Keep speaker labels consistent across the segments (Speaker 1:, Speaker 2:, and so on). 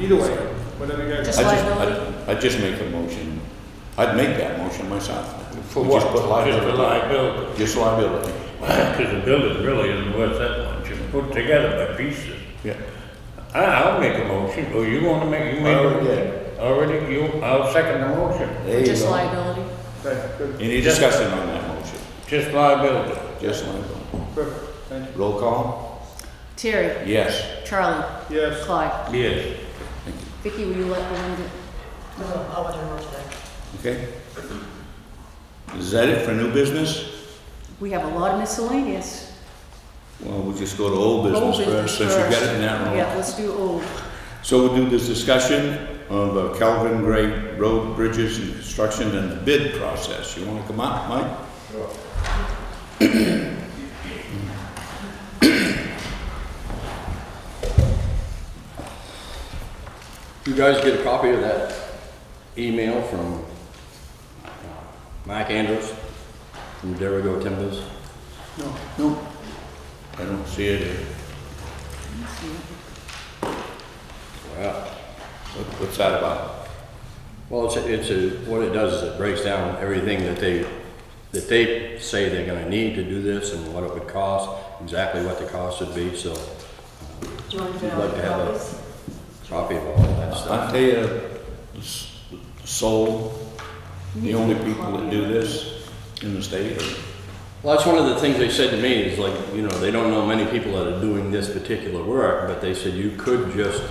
Speaker 1: Either way, whatever you guys.
Speaker 2: Just
Speaker 3: I
Speaker 2: like-
Speaker 3: just, I'd, I'd just make a motion, I'd make that motion myself.
Speaker 4: For
Speaker 3: We Just
Speaker 4: what?
Speaker 3: put
Speaker 5: Just the
Speaker 3: liability,
Speaker 5: liability,
Speaker 3: just liability,
Speaker 5: because the building really isn't worth that much, it's put together by pieces.
Speaker 3: yeah.
Speaker 5: I, I'll make a motion, or you wanna make, you
Speaker 3: I
Speaker 5: make. a-
Speaker 3: already did.
Speaker 5: Already, you, I'll second the motion,
Speaker 3: There you
Speaker 2: Just
Speaker 3: go.
Speaker 2: liability.
Speaker 1: Okay, good,
Speaker 3: Any discussion on that motion?
Speaker 5: just liability.
Speaker 3: Just liability.
Speaker 1: perfect, thank you.
Speaker 3: Roll call?
Speaker 2: Terry,
Speaker 3: Yes.
Speaker 2: Charlie,
Speaker 1: Yes,
Speaker 2: Clyde.
Speaker 5: Yes.
Speaker 2: Vicky, will you let Belinda?
Speaker 6: No, I want to know today.
Speaker 3: Okay. Is that it for new business?
Speaker 2: We have a lot of miscellaneous.
Speaker 3: Well, we'll just go to old
Speaker 2: Old
Speaker 3: business
Speaker 2: business
Speaker 3: first, since you got
Speaker 2: first.
Speaker 3: it in that room.
Speaker 2: Yeah, let's do old.
Speaker 3: So we'll do this discussion of uh, Calvin Gray Road Bridges and Construction and the bid process. You wanna come up, Mike?
Speaker 4: You guys get a copy of that email from uh, Mike Andrews from Derigo Timbers?
Speaker 3: No, no. I don't see it.
Speaker 4: Wow.
Speaker 3: What- What's that about?
Speaker 4: Well, it's, a- it's a, what it does is it breaks down everything that they, that they say they're gonna need to do this and what it would cost, exactly what the cost would be, so
Speaker 6: Do you want to
Speaker 4: You'd
Speaker 6: get all
Speaker 4: like
Speaker 6: the
Speaker 4: to have a-
Speaker 6: copies?
Speaker 4: copy of all that
Speaker 3: I
Speaker 4: stuff.
Speaker 3: tell you, uh, s- Sol, the only people that do this in the state.
Speaker 4: Well, that's one of the things they said to me is like, you know, they don't know many people that are doing this particular work, but they said you could just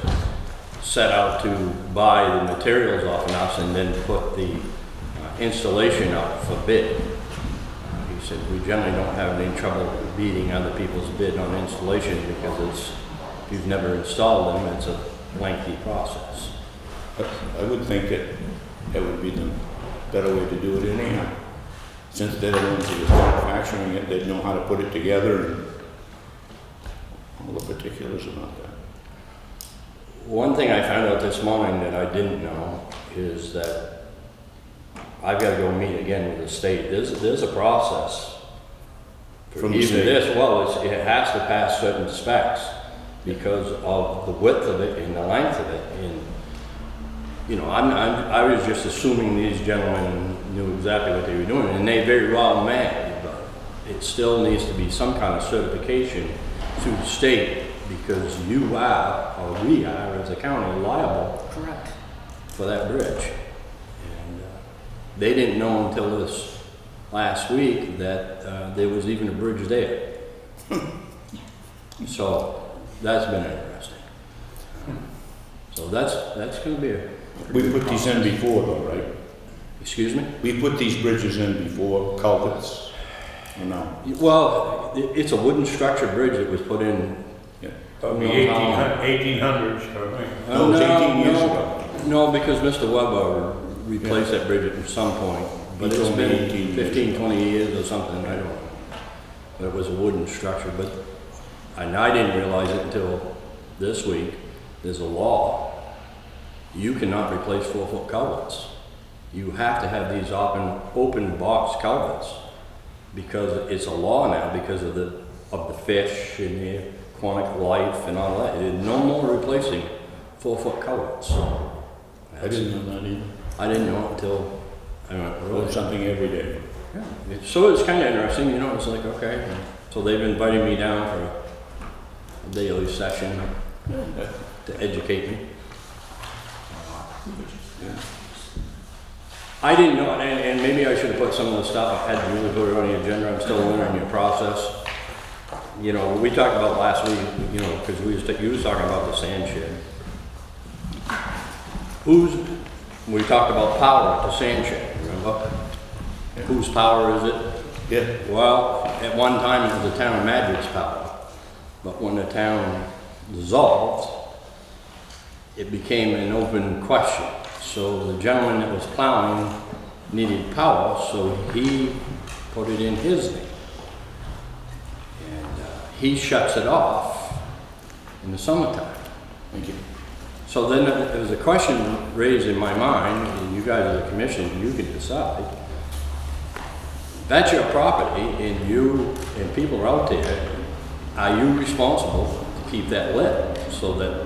Speaker 4: set out to buy the materials off of us and then put the uh, installation out for bid. Uh, He said, we generally don't have any trouble beating other people's bid on installation because it's, if you've never installed them, it's a lengthy process.
Speaker 3: But I would think that that would be the better way to do it anyhow. Since they're the ones that are manufacturing it, they know how to put it together and all the particulars about that.
Speaker 4: One thing I found out this morning that I didn't know is that I've got to go meet again with the state. There's, there's a process. for
Speaker 3: From the
Speaker 4: Even
Speaker 3: state.
Speaker 4: this, well, it's, it has to pass certain specs because of the width of it and the length of it. And, you know, I'm, I'm, I was just assuming these gentlemen knew exactly what they were doing and they very well may, but it still needs to be some kind of certification to the state because you are, or we are as a county liable
Speaker 2: Correct.
Speaker 4: for that bridge. And uh, they didn't know until this last week that uh, there was even a bridge there. So that's been interesting. So that's, that's going to be a.
Speaker 3: We put these in before though, right?
Speaker 4: Excuse me?
Speaker 3: We put these bridges in before culverts, or no?
Speaker 4: Well, i- it's a wooden structure bridge that was put in.
Speaker 3: Yeah.
Speaker 5: Probably eighteen hun- eighteen hundreds, I think.
Speaker 3: No, it was
Speaker 4: Uh,
Speaker 3: 18 years
Speaker 4: no,
Speaker 3: ago.
Speaker 4: No, because Mr. Weber replaced that bridge at some point, but
Speaker 3: He
Speaker 4: it's
Speaker 3: told me
Speaker 4: been
Speaker 3: 18 years
Speaker 4: 15,
Speaker 3: ago.
Speaker 4: 20 years or something, I don't know. But it was a wooden structure, but, and I didn't realize it until this week, there's a law. You cannot replace four-foot culverts. You have to have these open, open box culverts because it's a law now because of the, of the fish and the aquatic life and all that. There's no more replacing four-foot culverts.
Speaker 3: I didn't know that either.
Speaker 4: I didn't know it until I went,
Speaker 3: Learn
Speaker 4: really?
Speaker 3: something every day.
Speaker 4: It- So it was kind of interesting, you know, it's like, okay. So they've invited me down for a daily session to educate me. I didn't know, and, and maybe I should have put some of the stuff, I hadn't really put it on the agenda, I'm still learning your process. You know, we talked about last week, you know, because we was, ta- you was talking about the sand shed. Who's, we talked about power at the sand shed, remember? Whose power is it?
Speaker 3: Yeah,
Speaker 4: Well, at one time it was the town of Madrid's power, but when the town dissolved, it became an open question. So the gentleman that was plowing needed power, so he put it in his name. And uh, he shuts it off in the summertime.
Speaker 3: thank you.
Speaker 4: So then there was a question raised in my mind, and you guys are the commission, you can decide. That's your property, and you, and people are out there, are you responsible to keep that lit so that